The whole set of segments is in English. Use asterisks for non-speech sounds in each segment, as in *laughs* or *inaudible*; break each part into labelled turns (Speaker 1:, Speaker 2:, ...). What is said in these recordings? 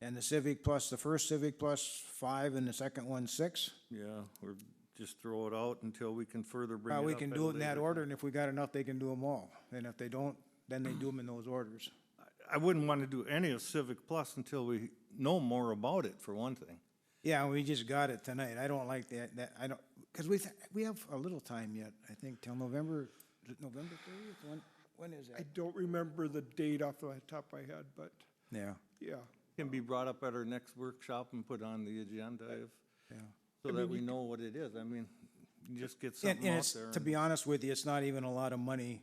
Speaker 1: And the Civic Plus, the first Civic Plus, five, and the second one, six?
Speaker 2: Yeah, or just throw it out until we can further bring it
Speaker 1: Uh,
Speaker 2: up.
Speaker 1: we can
Speaker 2: at
Speaker 1: do
Speaker 2: a
Speaker 1: it in that
Speaker 2: later-
Speaker 1: order, and if we got enough, they can do them all. And if they don't, then they do them in those orders.
Speaker 2: I wouldn't want to do any of Civic Plus until we know more about it, for one thing.
Speaker 1: Yeah, we just got it tonight. I don't like that, that, I don't, because we, we have a little time yet, I think, till November, is it November thirtieth? When, when is
Speaker 3: I
Speaker 1: that?
Speaker 3: don't remember the date off the top of my head, but
Speaker 1: Yeah,
Speaker 3: yeah.
Speaker 2: Can be brought up at our next workshop and put on the agenda if,
Speaker 1: yeah.
Speaker 2: so that we know what it is. I mean, you just get
Speaker 1: And,
Speaker 2: something
Speaker 1: and
Speaker 2: out
Speaker 1: it's,
Speaker 2: there.
Speaker 1: to
Speaker 2: and-
Speaker 1: be honest with you, it's not even a lot of money.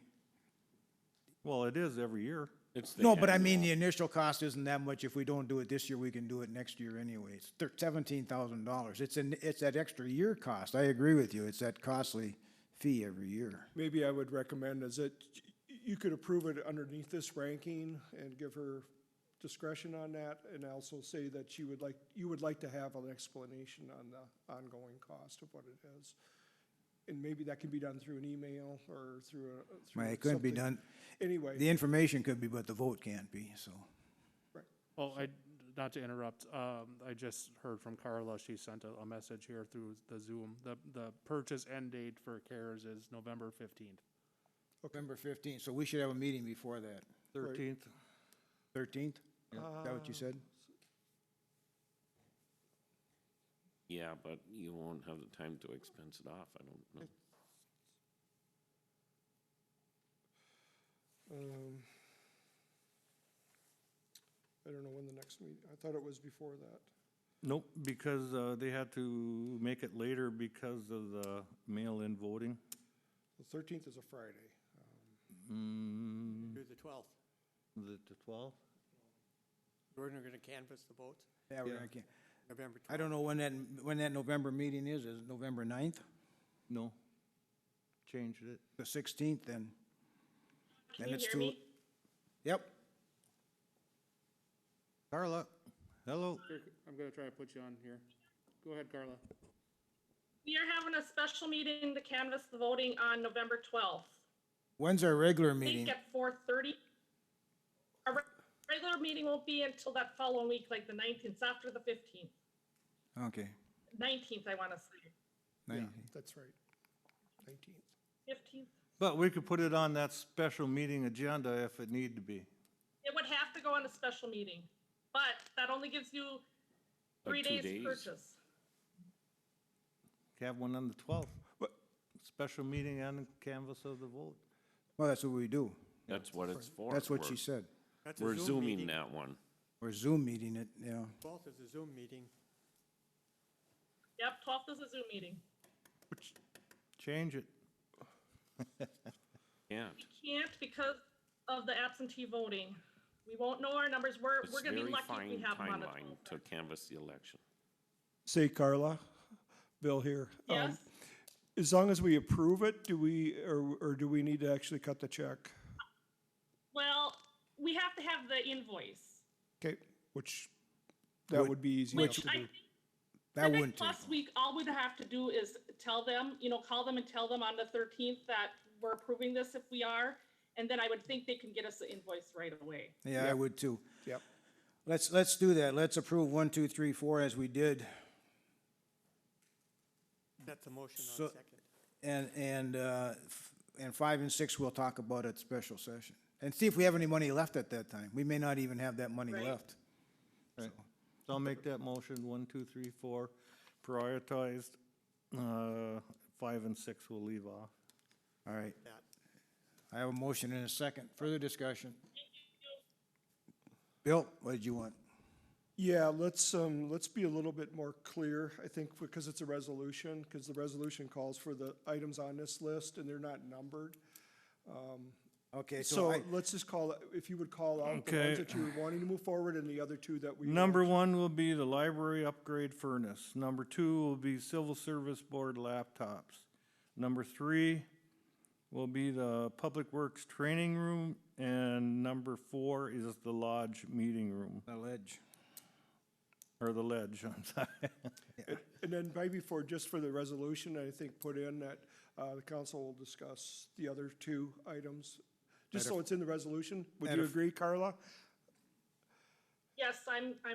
Speaker 2: Well, it is every year.
Speaker 4: It's the
Speaker 1: No, but I
Speaker 4: annual.
Speaker 1: mean, the initial cost isn't that much. If we don't do it this year, we can do it next year anyways. Thir- seventeen thousand dollars. It's an, it's that extra year cost. I agree with you. It's that costly fee every year.
Speaker 3: Maybe I would recommend is that y- you could approve it underneath this ranking and give her discretion on that and also say that you would like, you would like to have an explanation on the ongoing cost of what it is. And maybe that can be done through an email or through a. through
Speaker 1: Right, it couldn't be
Speaker 3: something.
Speaker 1: done,
Speaker 3: Anyway.
Speaker 1: the information could be, but the vote can't be, so.
Speaker 5: Well, Oh, I, not to interrupt, um, I just heard from Carla, she sent a, a message here through the Zoom. The, the purchase end date for CARES is November fifteenth.
Speaker 1: November fifteenth, so we should have a meeting before that.
Speaker 2: Thirteenth,
Speaker 1: Thirteenth? Is
Speaker 3: uh,
Speaker 1: that what you said?
Speaker 4: Yeah, but you won't have the time to expense it off, I don't know.
Speaker 3: Um, I don't know when the next meet, I thought it was before that.
Speaker 2: nope, because, uh, they had to make it later because of the mail-in voting.
Speaker 3: The thirteenth is a Friday. Um,
Speaker 2: Mm,
Speaker 6: Through the twelfth.
Speaker 2: is it the twelfth?
Speaker 6: Jordan, we're gonna canvass the votes
Speaker 1: Uh, Yeah, we're
Speaker 2: Yeah.
Speaker 1: gonna ca-
Speaker 6: November
Speaker 1: I
Speaker 6: twelfth.
Speaker 1: don't know when that, when that November meeting is. Is it November ninth?
Speaker 2: No. Changed it.
Speaker 1: The sixteenth then? Then
Speaker 7: you
Speaker 1: it's
Speaker 7: hear
Speaker 1: too-
Speaker 7: me?
Speaker 1: Yep.
Speaker 2: Carla, hello.
Speaker 5: I'm gonna try to put you on here. Go ahead, Carla.
Speaker 7: We are having a special meeting to canvass the voting on November twelfth.
Speaker 1: When's our regular
Speaker 7: I
Speaker 1: meeting?
Speaker 7: think at four thirty. Our reg- regular meeting won't be until that following week, like the nineteenth, after the fifteenth,
Speaker 1: Okay.
Speaker 7: nineteenth, I wanna say,
Speaker 3: Yeah,
Speaker 1: 19th.
Speaker 3: that's right. Nineteenth.
Speaker 7: fifteenth.
Speaker 2: But we could put it on that special meeting agenda if it need to be.
Speaker 7: It would have to go on a special meeting, but that only gives you three
Speaker 4: Like two
Speaker 7: days
Speaker 4: days.
Speaker 7: to purchase.
Speaker 2: Have one on the twelfth. Special meeting on the canvas of the vote.
Speaker 1: Well, that's what we do.
Speaker 4: That's what it's for.
Speaker 1: That's what
Speaker 4: We're-
Speaker 1: she said.
Speaker 6: That's a
Speaker 4: We're
Speaker 6: Zoom
Speaker 4: zooming
Speaker 6: meeting.
Speaker 4: that one.
Speaker 1: We're Zoom meeting it, yeah.
Speaker 6: Twelfth is a Zoom meeting.
Speaker 7: Yep, twelfth is a Zoom meeting.
Speaker 2: Change it.
Speaker 4: Yeah,
Speaker 7: We can't because of the absentee voting. We won't know our numbers. We're,
Speaker 4: it's
Speaker 7: we're gonna be
Speaker 4: very
Speaker 7: lucky if
Speaker 4: fine
Speaker 7: we have them on the
Speaker 4: timeline
Speaker 7: 12th.
Speaker 4: to canvass the election.
Speaker 3: Say Carla, Bill here. Um,
Speaker 7: Yes?
Speaker 3: As long as we approve it, do we, or, or do we need to actually cut the check?
Speaker 7: Well, we have to have the invoice.
Speaker 3: Okay, which, that would be easy enough
Speaker 7: Which
Speaker 3: to
Speaker 7: I
Speaker 3: do.
Speaker 7: think
Speaker 1: That
Speaker 7: Civic
Speaker 1: wouldn't take,
Speaker 7: Plus week, all we'd have to do is tell them, you know, call them and tell them on the thirteenth that we're approving this if we are. And then I would think they can get us the invoice right away.
Speaker 1: yeah, I would too.
Speaker 3: Yep.
Speaker 1: Let's, let's do that. Let's approve one, two, three, four as we did.
Speaker 6: That's a motion
Speaker 1: So-
Speaker 6: on second.
Speaker 1: And, and, uh, f- and five and six, we'll talk about at special session. And see if we have any money left at that time. We may not even have that money
Speaker 7: Right.
Speaker 1: left.
Speaker 2: Right. So I'll make that motion, one, two, three, four, prioritized. Uh, five and six we'll leave off.
Speaker 1: All right.
Speaker 6: That.
Speaker 1: I have a motion and a second. Further discussion? Bill, what did you want?
Speaker 3: Yeah, let's, um, let's be a little bit more clear, I think, because it's a resolution, because the resolution calls for the items on this list and they're not numbered.
Speaker 1: Okay, so
Speaker 3: So
Speaker 1: I,
Speaker 3: let's just call, it- if you would call out the
Speaker 2: Okay.
Speaker 3: ones that you're wanting to move forward and the other two that we.
Speaker 2: Number one will be the library upgrade furnace. Number two will be civil service board laptops. Number three will be the public works training room, and number four is the lodge meeting room,
Speaker 1: the ledge.
Speaker 2: or the ledge, *laughs* I'm sorry.
Speaker 3: And then right before, just for the resolution, I think put in that uh, the council will discuss the other two items, just so it's in the resolution. Would
Speaker 1: at
Speaker 3: you
Speaker 1: a-
Speaker 3: agree, Carla?
Speaker 7: Yes, I'm, I'm